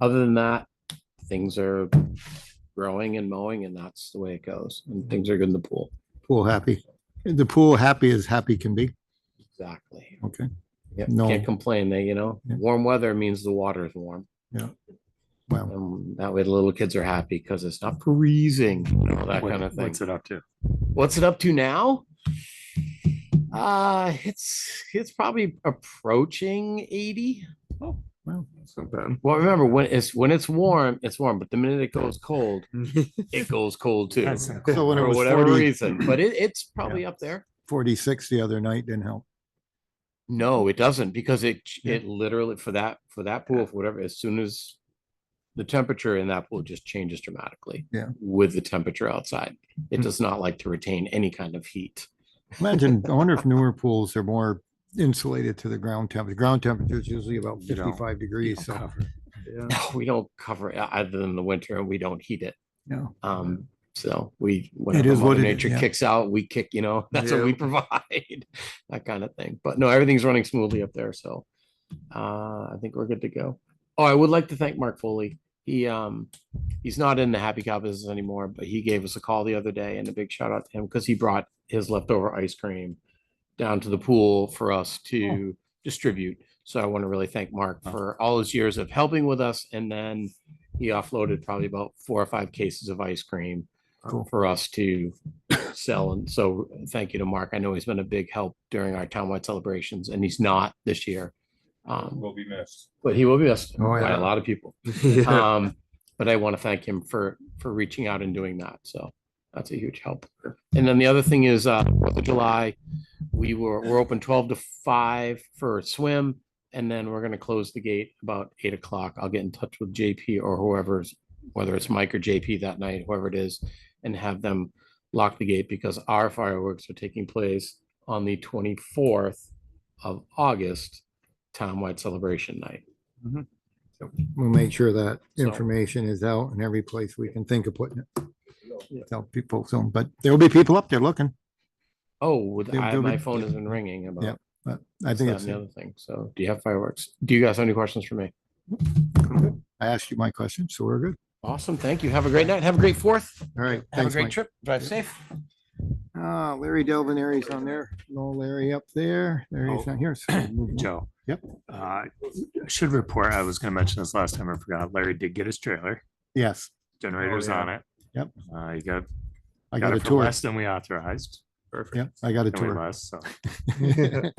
other than that, things are growing and mowing and that's the way it goes. And things are good in the pool. Pool happy. The pool happy as happy can be. Exactly. Okay. Yep, No. can't complain there, you know, Yeah. warm weather means the water is warm. Well, Um, that way the little kids are happy because it's not freezing, you know, that What- kind of thing. What's it up to? What's it up to now? Uh, it's, it's probably approaching eighty. well, It's not bad. Well, remember when it's, when it's warm, it's warm, but the minute it goes cold, it goes cold too. Mm-hmm. That's- so when it For was whatever 40 reason, but it, it's probably up there. 46 the other night didn't help. No, it doesn't because it, ch- Yeah. it literally for that, for that pool, for whatever, as soon as the temperature in that pool just changes dramatically. Yeah. With the temperature outside. It Hmm. does not like to retain any kind of heat. Imagine, I wonder if newer pools are more insulated to the ground temperature. Ground temperature is usually about You don't- 55 degrees. So, We don't cover it o- other than the winter and we don't heat it. yeah. Um, so we, whenever is what Mother it is, nature yeah. kicks out, we kick, you know, that's what we Yeah. provide, that kind of thing. But no, everything's running smoothly up there. So uh, I think we're good to go. Oh, I would like to thank Mark Foley. He, um, he's not in the Happy Cow business anymore, but he gave us a call the other day and a big shout out to him because he brought his leftover ice cream down to the pool for us Oh. to distribute. So I want to really thank Mark Oh. for all his years of helping with us. And then he offloaded probably about four or five cases of ice cream uh, Cool. for us to sell. And so thank you to Mark. I know he's been a big help during our townwide celebrations and he's not this year. Um, will be missed. but he will be missed Oh, by yeah. a lot of people. Yeah. Um, but I want to thank him for, for reaching out and doing that. So that's a huge help. And then the other thing is, uh, Fourth of July, we were, we're open twelve to five for a swim. And then we're gonna close the gate about eight o'clock. I'll get in touch with JP or whoever's, whether it's Mike or JP that night, whoever it is, and have them lock the gate because our fireworks are taking place on the twenty-fourth of August, townwide celebration night. We'll make sure that So- information is out in every place we can think of putting Yeah. it. Tell people soon, but there'll be people up there looking. Oh, with- They'll- I- they'll be- my phone has been ringing about. But I It's think that it's, and the other thing. So do you have fireworks? Do you guys have any questions for me? I asked you my question, so we're good. Awesome. Thank you. Have a great night. Have a great fourth. All right. Have a thanks, great Mike. trip. Drive safe. Uh, Larry Delvinary's on there. No Larry up there. Larry's Oh. not here. so we'll move on. Joe. Yep. Uh, I Should report, I was gonna mention this last time, I forgot, Larry did get his trailer, Yes, generators yeah. on it. Yep. Uh, he got, I got got a it for tour. less than we authorized. Yep, I got a Than we tour. must, so,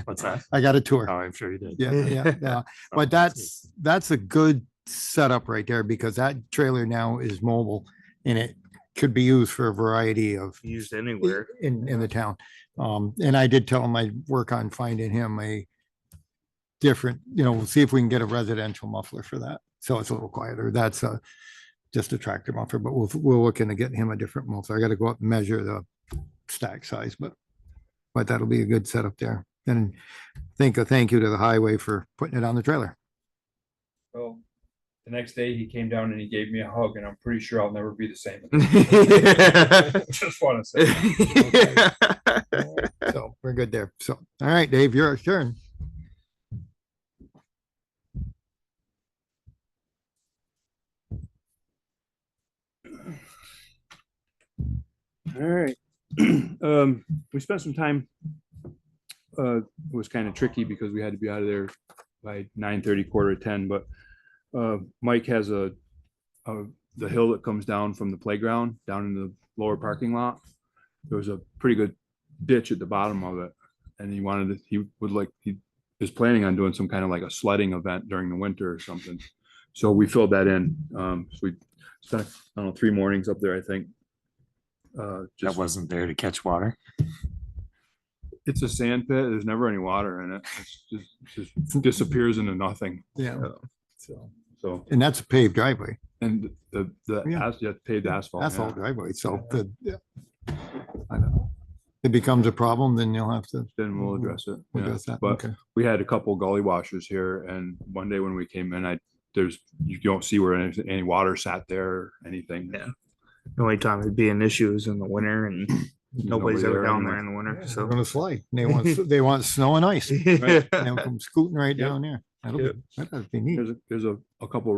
what's that? I got a Oh, tour. I'm sure you did. Yeah, yeah, yeah. Oh, But that's, that's a good setup right there because that trailer now is mobile and it could be used for a variety of Used anywhere. in, in the town. Um, and I did tell him I'd work on finding him a different, you know, we'll see if we can get a residential muffler for that. So it's a little quieter. That's a, just a tractor muffler, but we'll, we'll look into getting him a different muffler. I gotta go up and measure the stack size, but, but that'll be a good setup there. And think a thank you to the highway for putting it on the trailer. Well, the next day he came down and he gave me a hug and I'm pretty sure I'll never be the same. Just wanna say. So we're good there. So, all right, Dave, you're adjourned. All right. Um, we spent some time. Uh, it was kind of tricky because we had to be out of there by nine thirty, quarter to ten, but uh, Mike has a, a, the hill that comes down from the playground down in the lower parking lot. There was a pretty good ditch at the bottom of it and he wanted to, he would like, he is planning on doing some kind of like a sledding event during the winter or something. So we filled that in. Um, so we spent, I don't know, three mornings up there, I think. Uh, That just wasn't there to catch water. it's a sand pit. There's never any water in it. It's just, it just disappears into nothing. Yeah. So, so, And that's a paved driveway, and the, the, Yeah. as- yeah, paved asphalt. That's all yeah. driveway. So the, yeah. I know. If it becomes a problem, then you'll have to Then we'll address it. yeah. address that. But Okay. we had a couple gully washers here and one day when we came in, I, there's, you don't see where any, any water sat there, or anything. Yeah. The only time it'd be an issue is in the winter and nobody's Nobody ever down anymore. there in the winter. They're So. gonna slide. They want, s- they want snow and ice. Right. And they'll come scooting right Yep. down there. That'll be, that'd be neat. There's, a- there's a, a couple